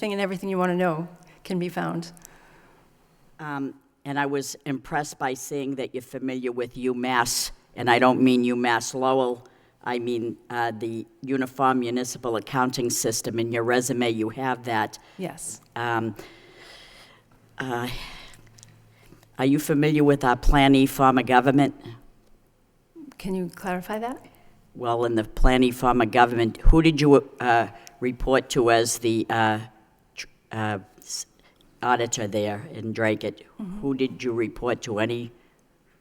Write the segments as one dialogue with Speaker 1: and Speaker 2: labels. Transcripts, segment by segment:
Speaker 1: thing and everything you want to know can be found.
Speaker 2: Um, And I was impressed by seeing that you're familiar with UMass, and I don't mean UMass Lowell, I mean uh, the Uniform Municipal Accounting System. In your resume, you have that.
Speaker 1: Yes.
Speaker 2: Um, uh, Are you familiar with our Plan E form of government?
Speaker 1: Can you clarify that?
Speaker 2: Well, in the Plan E form of government, who did you uh, report to as the uh, tr- uh, s- auditor there in Dracut? Who did you report to? Any,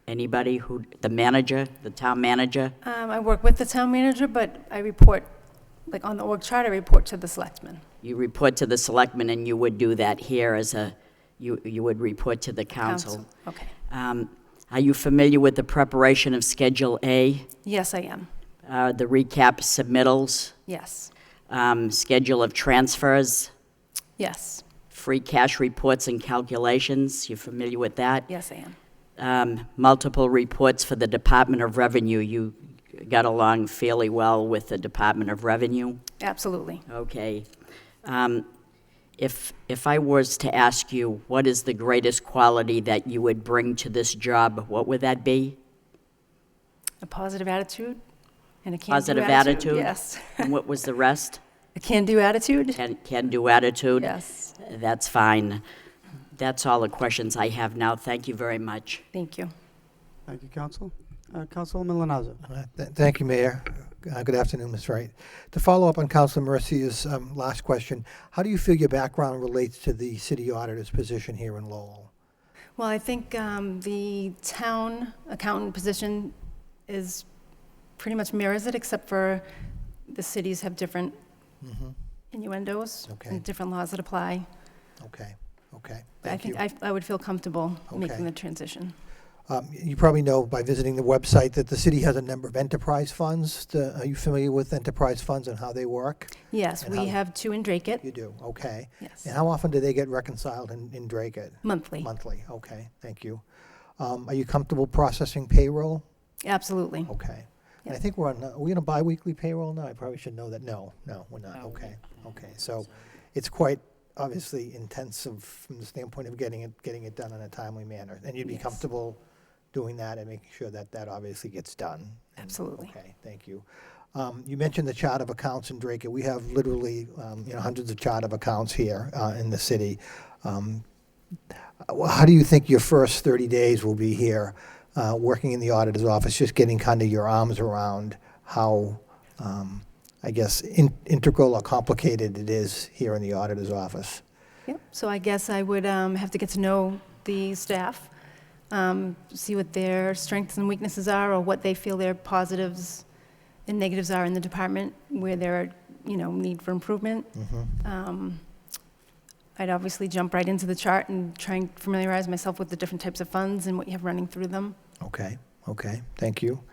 Speaker 2: anybody? Who, the manager, the town manager?
Speaker 1: Um, I work with the town manager, but I report, like on the org chart, I report to the selectmen.
Speaker 2: You report to the selectmen, and you would do that here as a, you, you would report to the council.
Speaker 1: Okay.
Speaker 2: Um, Are you familiar with the preparation of Schedule A,
Speaker 1: Yes, I am.
Speaker 2: uh, the recap submittals,
Speaker 1: Yes.
Speaker 2: um, schedule of transfers?
Speaker 1: Yes.
Speaker 2: free cash reports and calculations, you're familiar with that?
Speaker 1: Yes, I am.
Speaker 2: Um, Multiple reports for the Department of Revenue, you got along fairly well with the Department of Revenue?
Speaker 1: Absolutely.
Speaker 2: Okay. Um, If, if I was to ask you, what is the greatest quality that you would bring to this job, what would that be?
Speaker 1: A positive attitude and a can-do attitude.
Speaker 2: Positive attitude?
Speaker 1: Yes.
Speaker 2: And what was the rest?
Speaker 1: A can-do attitude?
Speaker 2: Can, can-do attitude?
Speaker 1: Yes.
Speaker 2: That's fine. That's all the questions I have now. Thank you very much.
Speaker 1: Thank you.
Speaker 3: Thank you, Council. Uh, Councilwoman Linazzo.
Speaker 4: Uh, th- Thank you, Mayor. Uh, Good afternoon, Ms. Wright. To follow up on Councilor Mercy's um, last question, how do you feel your background relates to the city auditor's position here in Lowell?
Speaker 1: Well, I think um, the town accountant position is, pretty much mirrors it, except for the cities have different innuendos
Speaker 4: Mm-hmm. Okay.
Speaker 1: and different laws that apply.
Speaker 4: Okay, okay,
Speaker 1: But I
Speaker 4: thank you.
Speaker 1: think I I would feel comfortable
Speaker 4: Okay.
Speaker 1: making the transition.
Speaker 4: Um, y- You probably know by visiting the website that the city has a number of enterprise funds. The- Are you familiar with enterprise funds and how they work?
Speaker 1: Yes,
Speaker 4: And
Speaker 1: we
Speaker 4: how-
Speaker 1: have two in Drakeit,
Speaker 4: You do, okay.
Speaker 1: yes,
Speaker 4: And how often do they get reconciled in in Dracut?
Speaker 1: monthly,
Speaker 4: Monthly, okay, thank you. Um, Are you comfortable processing payroll?
Speaker 1: absolutely.
Speaker 4: Okay. And I
Speaker 1: Yep.
Speaker 4: think we're on, are we on a bi-weekly payroll now? I probably should know that. No, no, we're not. Okay, okay. So it's quite obviously intensive from the standpoint of getting it, getting it done in a timely manner. And you'd be
Speaker 1: Yes.
Speaker 4: comfortable doing that and making sure that that obviously gets done? And-
Speaker 1: Absolutely.
Speaker 4: Okay, thank you. Um, You mentioned the chart of accounts in Drake. We have literally, um, you know, hundreds of chart of accounts here uh, in the city. Um, uh, well, How do you think your first 30 days will be here, uh, working in the auditor's office, just getting kind of your arms around how, um, I guess, in- integral or complicated it is here in the auditor's office?
Speaker 1: Yep, so I guess I would um, have to get to know the staff, um, see what their strengths and weaknesses are, or what they feel their positives and negatives are in the department, where there are, you know, need for improvement.
Speaker 4: Mm-hmm.
Speaker 1: Um, I'd obviously jump right into the chart and try and familiarize myself with the different types of funds and what you have running through them.
Speaker 4: Okay, okay, thank you.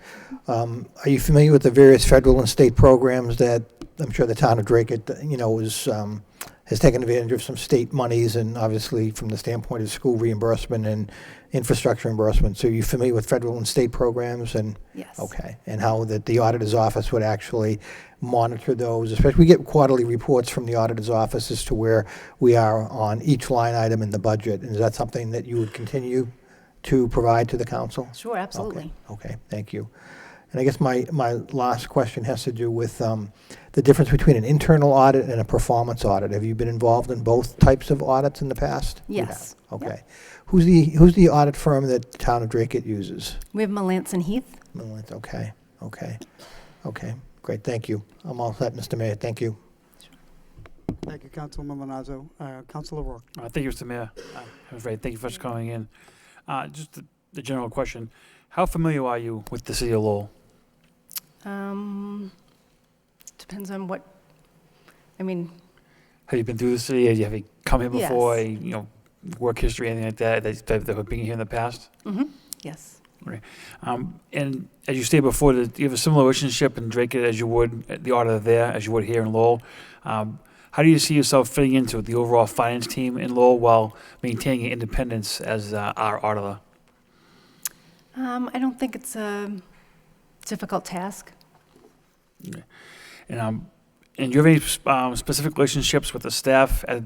Speaker 4: Um, Are you familiar with the various federal and state programs that, I'm sure the town of Drake, it, you know, is, um, has taken advantage of some state monies and obviously from the standpoint of school reimbursement and infrastructure reimbursement, so are you familiar with federal and state programs and?
Speaker 1: Yes.
Speaker 4: Okay, and how that the auditor's office would actually monitor those, especially, we get quarterly reports from the auditor's office as to where we are on each line item in the budget, and is that something that you would continue to provide to the council?
Speaker 1: Sure, absolutely.
Speaker 4: Okay, okay, thank you. And I guess my, my last question has to do with um, the difference between an internal audit and a performance audit. Have you been involved in both types of audits in the past? You have,
Speaker 1: Yes, yep.
Speaker 4: Okay. Who's the, who's the audit firm that the town of Dracut uses?
Speaker 1: We have Melanson Heath.
Speaker 4: Millwood, okay, okay, okay, great, thank you. I'm all set, Mr. Mayor, thank you.
Speaker 3: Thank you, Councilwoman Linazzo. Uh, Councilor Rourke.
Speaker 5: Uh, Thank you, Mr. Mayor. Uh, that was great. Thank you for calling in. Uh, Just the- the general question, how familiar are you with the city of Lowell?
Speaker 1: Um, Depends on what, I mean,
Speaker 5: Have you been through the city? Have you have you come here before?
Speaker 1: Yes.
Speaker 5: You know, work history, anything like that, that that- that have been here in the past?
Speaker 1: mhm, yes,
Speaker 5: Um, And as you stated before, that you have a similar relationship in Drake as you would, at the auditor there, as you would here in Lowell. Um, How do you see yourself fitting into the overall finance team in Lowell while maintaining your independence as uh, our auditor?
Speaker 1: Um, I don't think it's a difficult task.
Speaker 5: And um, and do you have any um, specific relationships with the staff at the